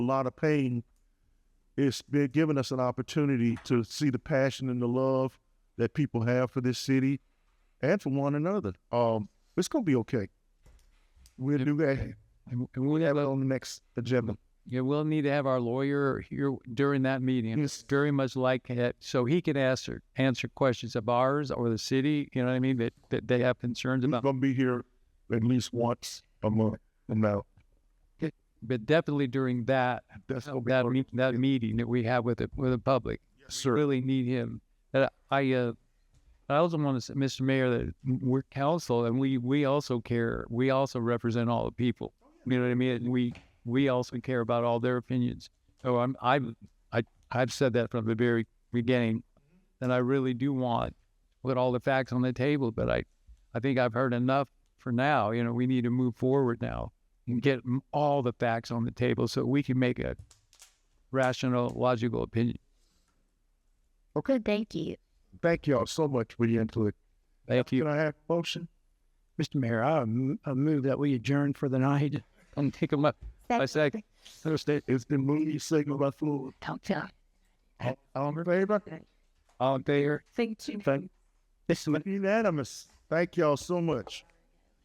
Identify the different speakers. Speaker 1: a lot of pain, it's been giving us an opportunity to see the passion and the love that people have for this city and for one another. Um, it's gonna be okay. We'll do that. And we'll have that on the next agenda.
Speaker 2: Yeah, we'll need to have our lawyer here during that meeting. It's
Speaker 1: Yes.
Speaker 2: very much like that, so he can answer answer questions of ours or the city. You know what I mean? That, that they have concerns
Speaker 1: He's
Speaker 2: about,
Speaker 1: gonna be here at least once a month from now.
Speaker 2: but definitely during that
Speaker 1: That's gonna be
Speaker 2: that me- that meeting that we have with the with the public.
Speaker 1: yes, sir.
Speaker 2: really need him. And I, uh, I also want to say, Mr. Mayor, that we're council and we, we also care. We also represent all the people. You know what I mean? And we, we also care about all their opinions. So I'm, I'm, I, I've said that from the very beginning. And I really do want to put all the facts on the table, but I, I think I've heard enough for now. You know, we need to move forward now and get m- all the facts on the table so we can make a rational, logical opinion.
Speaker 1: Okay,
Speaker 3: Thank you.
Speaker 1: thank y'all so much for your input.
Speaker 2: Thank you.
Speaker 1: Can I have a motion?
Speaker 4: Mr. Mayor, I m- I move that we adjourn for the night.
Speaker 2: and take them up. I say,
Speaker 1: Thursday, it's been moving signal by fluid.
Speaker 3: Don't tell.
Speaker 1: All all in favor?
Speaker 2: all there.
Speaker 3: Thank you.
Speaker 1: Thank,
Speaker 4: This is
Speaker 1: unanimous. Thank y'all so much.